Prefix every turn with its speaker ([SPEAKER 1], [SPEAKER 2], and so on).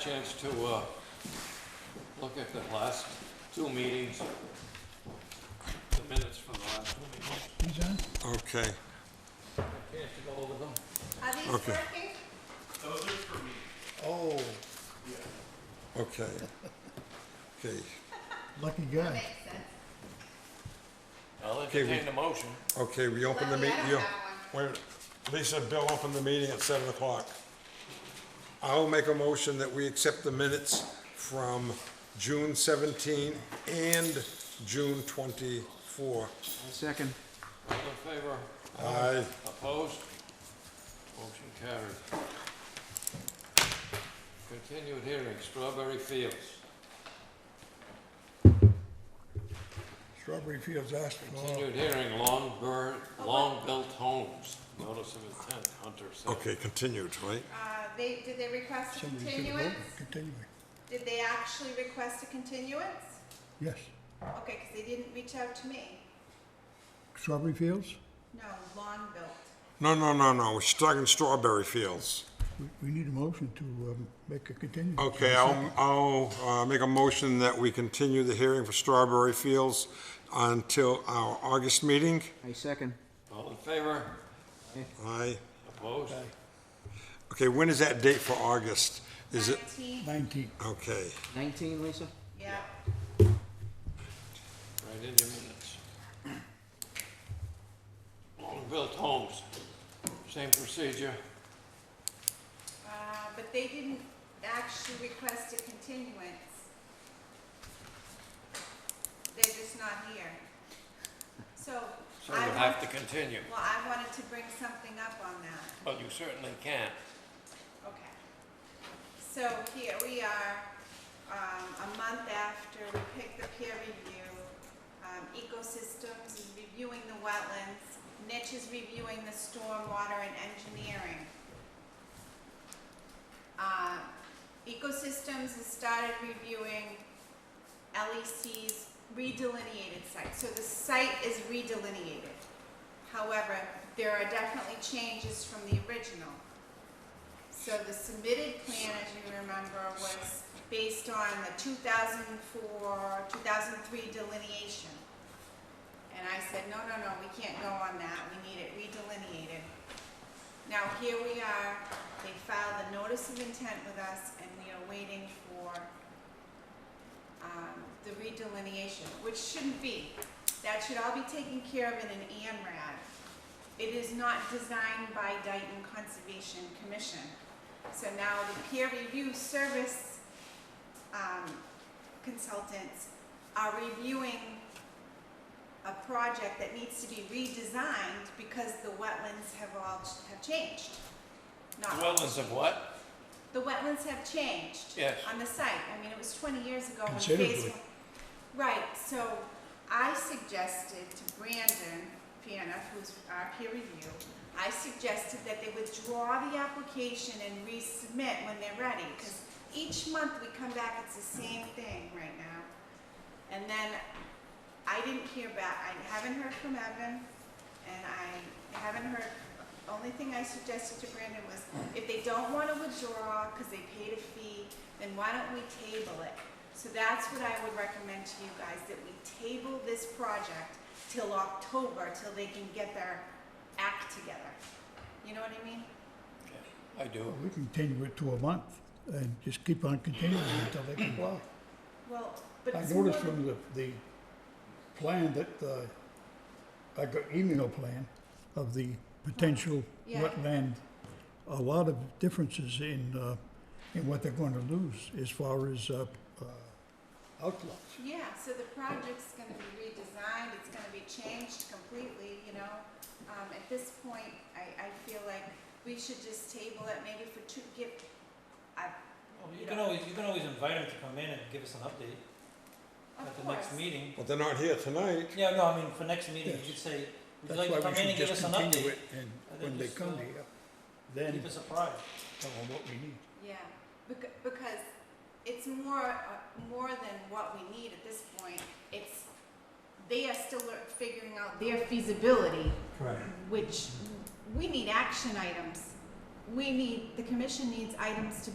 [SPEAKER 1] chance to uh, look at the last two meetings, the minutes from the last two meetings.
[SPEAKER 2] Okay,
[SPEAKER 1] Chance to go over them?
[SPEAKER 3] Are these
[SPEAKER 2] Okay.
[SPEAKER 3] working?
[SPEAKER 4] Oh,
[SPEAKER 2] okay. Okay,
[SPEAKER 4] lucky guy.
[SPEAKER 3] Makes sense.
[SPEAKER 1] I'll
[SPEAKER 2] Okay, we-
[SPEAKER 1] entertain the motion.
[SPEAKER 2] okay, we open the
[SPEAKER 3] Luckily,
[SPEAKER 2] meeting.
[SPEAKER 3] I don't have
[SPEAKER 2] Wait, Lisa, Bill opened the meeting at seven o'clock. I'll make a motion that we accept the minutes from June seventeen and June twenty-four.
[SPEAKER 5] Second.
[SPEAKER 1] All in favor?
[SPEAKER 2] Aye.
[SPEAKER 1] Opposed? Motion carried. Continued hearing, Strawberry Fields.
[SPEAKER 4] Strawberry Fields asked for tomorrow.
[SPEAKER 1] Continued hearing, Long Bird, Long Built Homes. Notice of intent, Hunter said.
[SPEAKER 2] Okay, continued, right?
[SPEAKER 3] Uh, they, did they request a
[SPEAKER 4] Somebody should have
[SPEAKER 3] continuance?
[SPEAKER 4] voted. Continuing,
[SPEAKER 3] Did they actually request a continuance?
[SPEAKER 4] yes.
[SPEAKER 3] Okay, because they didn't reach out to me.
[SPEAKER 4] Strawberry Fields,
[SPEAKER 3] No, lawn built.
[SPEAKER 2] No, no, no, no, we're talking strawberry fields.
[SPEAKER 4] we, we need a motion to, um, make a continuance.
[SPEAKER 2] Okay, I'll, I'll, uh, make a motion that we continue the hearing for strawberry fields until our August meeting.
[SPEAKER 5] I second.
[SPEAKER 1] All in favor?
[SPEAKER 2] Aye.
[SPEAKER 1] Opposed?
[SPEAKER 2] Okay, when is that date for August? Is it,
[SPEAKER 3] Nineteen,
[SPEAKER 4] Nineteen.
[SPEAKER 2] okay,
[SPEAKER 5] 19, Lisa?
[SPEAKER 3] yeah.
[SPEAKER 1] Right in your minutes. Long-built homes, same procedure.
[SPEAKER 3] Uh, but they didn't actually request a continuance. They're just not here. So
[SPEAKER 1] So
[SPEAKER 3] I
[SPEAKER 1] you have to
[SPEAKER 3] want,
[SPEAKER 1] continue,
[SPEAKER 3] well, I wanted to bring something up on that.
[SPEAKER 1] but you certainly can.
[SPEAKER 3] Okay. So here we are, um, a month after we picked the peer review. Um, Ecosystems is reviewing the wetlands, Niche is reviewing the stormwater and engineering. Uh, Ecosystems has started reviewing LEC's redelineated site, so the site is redelineated. However, there are definitely changes from the original. So the submitted plan, as you remember, was based on the 2004, 2003 delineation. And I said, no, no, no, we can't go on that, we need it redelineated. Now, here we are, they filed a notice of intent with us, and we are waiting for um, the redelineation, which shouldn't be. That should all be taken care of in an AMRAD. It is not designed by Dayton Conservation Commission. So now the peer review service um, consultants are reviewing a project that needs to be redesigned because the wetlands have all, have changed. Not
[SPEAKER 1] Wetlands of what?
[SPEAKER 3] the wetlands have changed.
[SPEAKER 1] Yes.
[SPEAKER 3] On the site, I mean, it was twenty years ago when phase
[SPEAKER 4] Considerably.
[SPEAKER 3] one. Right, so I suggested to Brandon Piana, who's our peer review, I suggested that they withdraw the application and resubmit when they're ready, because each month we come back, it's the same thing right now. And then I didn't hear back, I haven't heard from Evan, and I haven't heard, only thing I suggested to Brandon was, if they don't wanna withdraw, cause they paid a fee, then why don't we table it? So that's what I would recommend to you guys, that we table this project till October, till they can get their act together. You know what I mean?
[SPEAKER 1] I do.
[SPEAKER 4] We can continue it to a month and just keep on continuing until they comply.
[SPEAKER 3] Well, but
[SPEAKER 4] I
[SPEAKER 3] it's more
[SPEAKER 4] noticed
[SPEAKER 3] than-
[SPEAKER 4] from the, the plan that, uh, I got email plan of the potential
[SPEAKER 3] Oh, Yeah.
[SPEAKER 4] wetland, a lot of differences in, uh, in what they're going to lose as far as, uh, uh, outlets.
[SPEAKER 3] Yeah, so the project's gonna be redesigned, it's gonna be changed completely, you know? Um, at this point, I, I feel like we should just table it maybe for two, give, I,
[SPEAKER 6] Well, you can always, you can always invite them to come in and give us an update
[SPEAKER 3] of
[SPEAKER 6] at the
[SPEAKER 3] course.
[SPEAKER 6] next meeting.
[SPEAKER 2] Well, they're not here tonight.
[SPEAKER 6] Yeah, no, I mean, for next meeting,
[SPEAKER 4] Yes.
[SPEAKER 6] you could say, would you
[SPEAKER 4] That's
[SPEAKER 6] like to
[SPEAKER 4] why
[SPEAKER 6] come
[SPEAKER 4] we
[SPEAKER 6] in and
[SPEAKER 4] should
[SPEAKER 6] give
[SPEAKER 4] just
[SPEAKER 6] us an
[SPEAKER 4] continue
[SPEAKER 6] update?
[SPEAKER 4] it, and
[SPEAKER 6] And then
[SPEAKER 4] when they
[SPEAKER 6] just,
[SPEAKER 4] come
[SPEAKER 6] uh,
[SPEAKER 4] here,
[SPEAKER 6] Keep
[SPEAKER 4] then
[SPEAKER 6] us apprised.
[SPEAKER 4] tell them what we need.
[SPEAKER 3] Yeah, becau- because it's more, uh, more than what we need at this point. It's, they are still lear- figuring out their feasibility,
[SPEAKER 6] Correct.
[SPEAKER 3] which we need action items. We need, the commission needs items to